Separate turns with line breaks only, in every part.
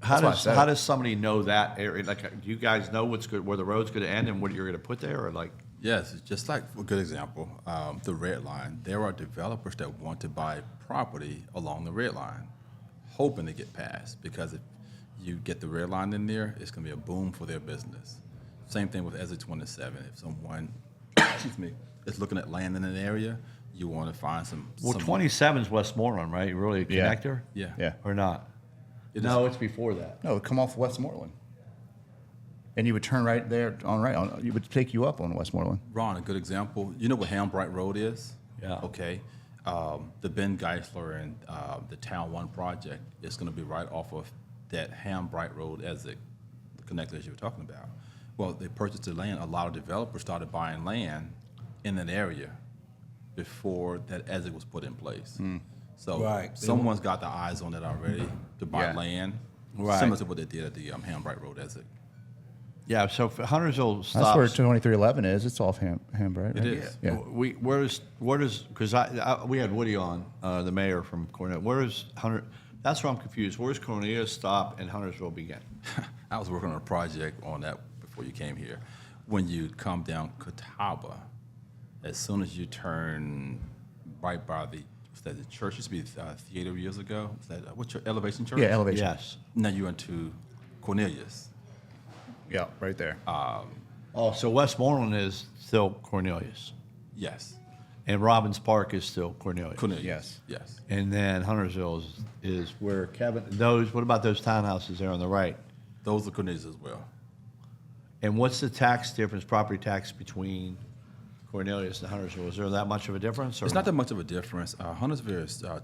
How
That's why I
does,
said
how
it.
does somebody know that area? Like, uh, do you guys know what's good, where the road's gonna end and what you're gonna put there, or like?
Yes, it's just like a good example, um, the red line. There are developers that want to buy property along the red line, hoping to get past because if you get the red line in there, it's going to be a boom for their business. Same thing with Exit 27. If someone, excuse me, is looking at land in an area, you want to find some.
Well,
some-
27's Westmoreland, right? Really a
Yeah.
connector?
Yeah.
Yeah.
Or not?
It
No, it's before that.
No, it would come off Westmoreland. And you would turn right there on right on. You would take you up on Westmoreland.
Ron, a good example. You know what Hambright Road is?
Yeah.
Okay. Um, the Ben Geisler and uh, the Town One project is going to be right off of that Hambright Road exit, the connectors you were talking about. Well, they purchased the land. A lot of developers started buying land in that area before that exit was put in place. So
Right.
someone's got their eyes on it already to buy
Yeah.
land,
Right.
similar to what they did at the um, Hambright Road exit.
Yeah, so if Huntersville
That's where
stops.
2311 is. It's off Ham, Hambright. Right?
It is.
Yeah.
We, where's, where does, because I, I, we had Woody on, uh, the mayor from Cornell. Where is Hunter, that's where I'm confused. Where's Cornelia stop and Huntersville begin?
I was working on a project on that before you came here. When you come down Catawba, as soon as you turn right by the was that the church used to be uh, theater years ago. Was that uh, what's your elevation church?
Yeah, elevation.
Yes.
Now you're into Cornelius.
Yeah, right there.
Oh, so Westmoreland is still Cornelius,
Yes,
and Robbins Park is still Cornelius.
Cornelius.
Yes.
yes.
And then Huntersville is, is where Kevin, those, what about those townhouses there on the right?
Those are Cornelius as well.
And what's the tax difference, property tax between Cornelius and Huntersville? Is there that much of a difference? Or
It's not that much of a difference. Uh, Huntersville is uh,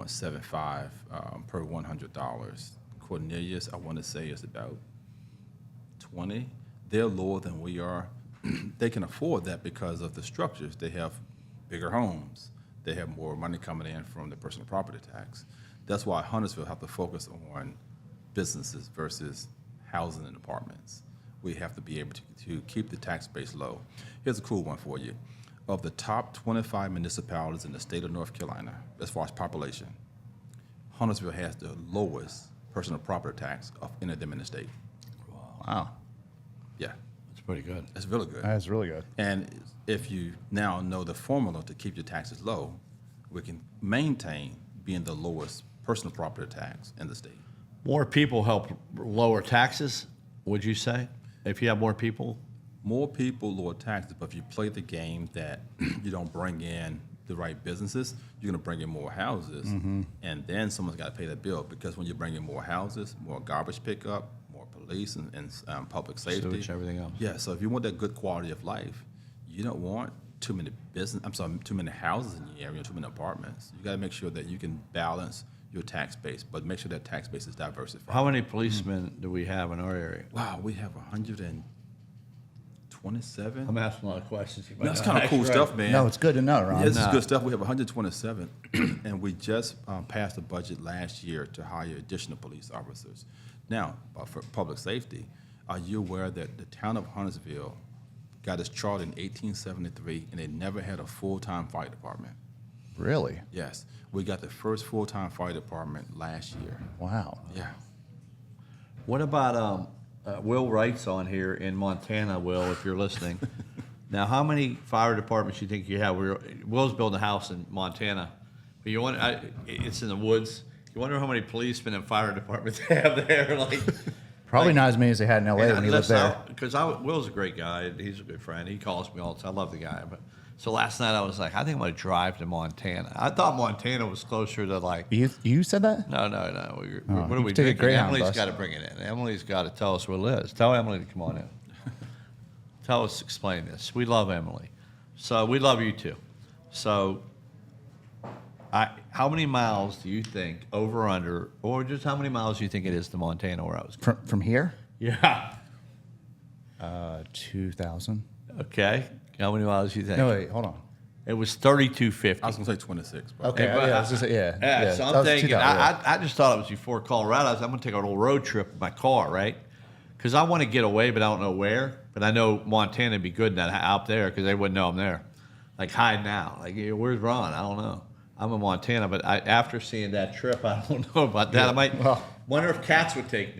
22.75 um, per $100. Cornelius, I want to say, is about 20. They're lower than we are. they can afford that because of the structures. They have bigger homes. They have more money coming in from the personal property tax. That's why Huntersville have to focus on businesses versus housing and apartments. We have to be able to, to keep the tax base low. Here's a cool one for you. Of the top 25 municipalities in the state of North Carolina, as far as population, Huntersville has the lowest personal property tax of any of them in the state.
Wow,
Yeah,
It's pretty good.
that's really good.
that's really good.
And if you now know the formula to keep your taxes low, we can maintain being the lowest personal property tax in the state.
More people help lower taxes, would you say? If you have more people?
More people lower taxes, but if you play the game that you don't bring in the right businesses, you're going to bring in more houses,
Mm-hmm.
and then someone's got to pay that bill because when you bring in more houses, more garbage pickup, more police and, and um, public safety,
Sewage, everything else.
Yeah, so if you want that good quality of life, you don't want too many business. I'm sorry, too many houses in your area, too many apartments. You got to make sure that you can balance your tax base, but make sure that tax base is diversified.
How many policemen do we have in our area?
wow, we have 127.
I'm asking a lot of questions. You might
That's
not
kind of
ask,
cool
uh, right?
stuff, man.
No, it's good to know, Ron.
Yeah, this is good stuff. We have 127, and we just um, passed a budget last year to hire additional police officers. Now, uh, for public safety, are you aware that the town of Huntersville got its charter in 1873, and they never had a full-time fire department?
Really?
Yes, we got the first full-time fire department last year.
Wow.
Yeah.
What about um, uh, Will Wright's on here in Montana? Will, if you're listening, now how many fire departments you think you have? We're, Will's building a house in Montana, but you want I, it's in the woods. You wonder how many policemen and fire departments they have there. Like
Probably not as many as they had in LA when he lived there.
because Will's a great guy. and He's a good friend. He calls me all the time. I love the guy. But so last night I was like, I think I'm gonna drive to Montana. I thought Montana was closer to like
You you said that?
no, no, no. We, we- what
Oh, you
are
can
we
take a
drinking?
Greyhound
Emily's
bus.
got to bring it in. Emily's got to tell us where Liz. Tell Emily to come on in. tell us, explain this. We love Emily, so we love you too. So, I, how many miles do you think over or under, or just how many miles do you think it is to Montana where I was?
From from here?
Yeah.
Uh, two thousand.
Okay. How many miles do you think?
No, wait, hold on.
It was thirty-two fifty.
I was going to say 26, but
Okay,
but-
yeah, I was gonna say- yeah,
Yeah,
yeah,
so
that
I'm
was
thinking,
2000,
I, I, I just thought it was before Colorado. I was, I'm going to take a little road trip in my car, right? Because I want to get away, but I don't know where. But I know Montana would be good in that, out there because they wouldn't know I'm there. Like, hiding out. Like, yeah, where's Ron? I don't know. I'm in Montana, but I, after seeing that trip, I don't know about that. I might
well-
wonder if cats would take me.